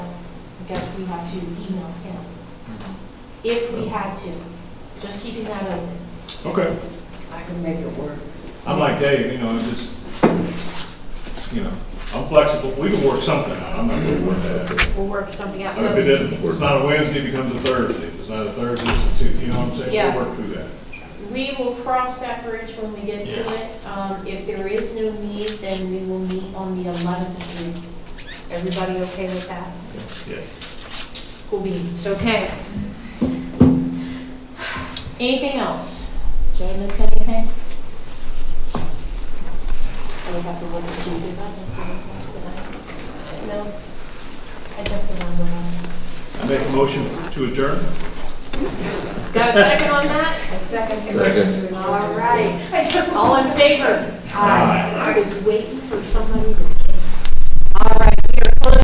guess we have to email him, if we had to, just keeping that open. Okay, I can make it work. I'm like Dave, you know, it's just, you know, I'm flexible, we can work something out, I'm not gonna work that out. We'll work something out. If it isn't, if it's not a Wednesday, it becomes a Thursday, if it's not a Thursday, it's a Tuesday, you know what I'm saying? Yeah. We'll work through that. We will cross that bridge when we get to it. Um, If there is no need, then we will meet on the 11th of June. Everybody okay with that? Yes. Cool beans, okay. Anything else? Did I miss anything? I would have to look at you if I missed anything, but I, no. I definitely don't know. I make a motion to adjourn? Got a second on that? A second Second. condition to. All right. All in favor? Aye. I was waiting for somebody to